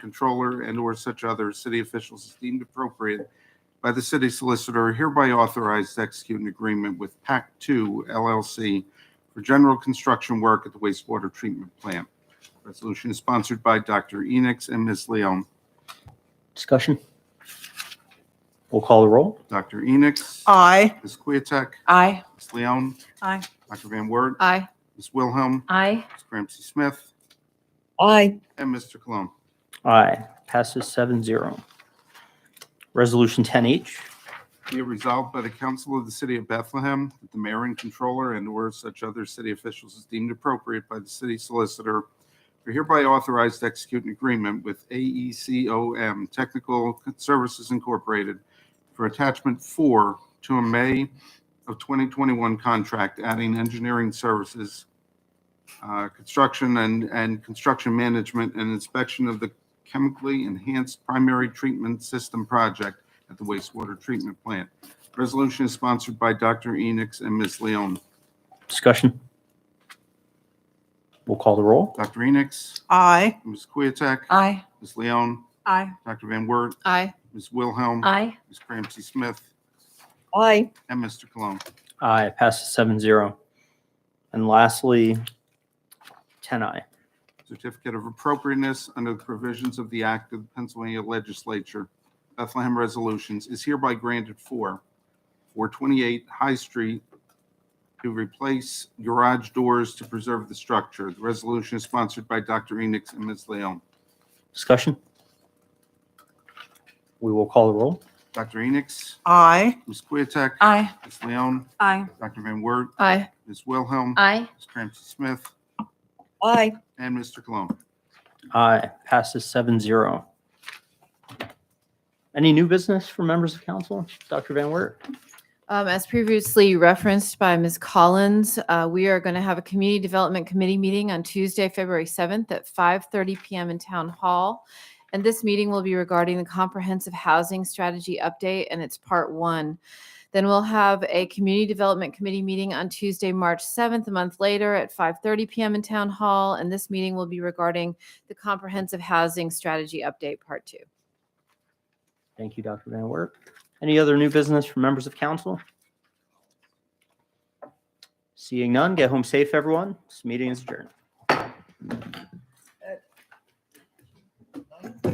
controller, and/or such other city officials as deemed appropriate by the city solicitor hereby authorized to execute an agreement with PAC Two LLC for general construction work at the wastewater treatment plant. Resolution is sponsored by Dr. Enix and Ms. Leon. Discussion? We'll call the roll. Dr. Enix. Aye. Ms. Queeteck. Aye. Ms. Leon. Aye. Dr. Van Wert. Aye. Ms. Wilhelm. Aye. Ms. Ramsey Smith. Aye. And Mr. Cologne. Aye. Passes seven zero. Resolution 10H. Be it resolved by the Council of the City of Bethlehem that the mayor and controller and/or such other city officials as deemed appropriate by the city solicitor are hereby authorized to execute an agreement with E AECOM Technical Services Incorporated for attachment four to a May of 2021 contract adding engineering services, uh, construction and, and construction management and inspection of the chemically enhanced primary treatment system project at the wastewater treatment plant. Resolution is sponsored by Dr. Enix and Ms. Leon. Discussion? We'll call the roll. Dr. Enix, Aye. Ms. Queeteck, Aye. Ms. Leon, Aye. Dr. Van Wert, Aye. Ms. Wilhelm, Aye. Ms. Ramsey Smith, Aye. and Mr. Cologne. Aye. Passes seven zero. And lastly, 10I. Certificate of appropriateness under the provisions of the Act of the Pennsylvania Legislature, Bethlehem Resolutions, is hereby granted for 428 High Street to replace garage doors to preserve the structure. The resolution is sponsored by Dr. Enix and Ms. Leon. Discussion? We will call the roll. Dr. Enix, Aye. Ms. Queeteck. Aye. Ms. Leon. Aye. Dr. Van Wert. Aye. Ms. Wilhelm. Aye. Ms. Ramsey Smith. Aye. And Mr. Cologne. Aye. Passes seven zero. Any new business for members of council? Dr. Van Wert? Um, as previously referenced by Ms. Collins, uh, we are going to have a Community Development Committee meeting on Tuesday, February 7th at 5:30 PM in Town Hall. And this meeting will be regarding the Comprehensive Housing Strategy Update, and it's part one. Then we'll have a Community Development Committee meeting on Tuesday, March 7th, a month later at 5:30 PM in Town Hall. And this meeting will be regarding the Comprehensive Housing Strategy Update, part two. Thank you, Dr. Van Wert. Any other new business from members of council? Seeing none, get home safe, everyone. This meeting is adjourned.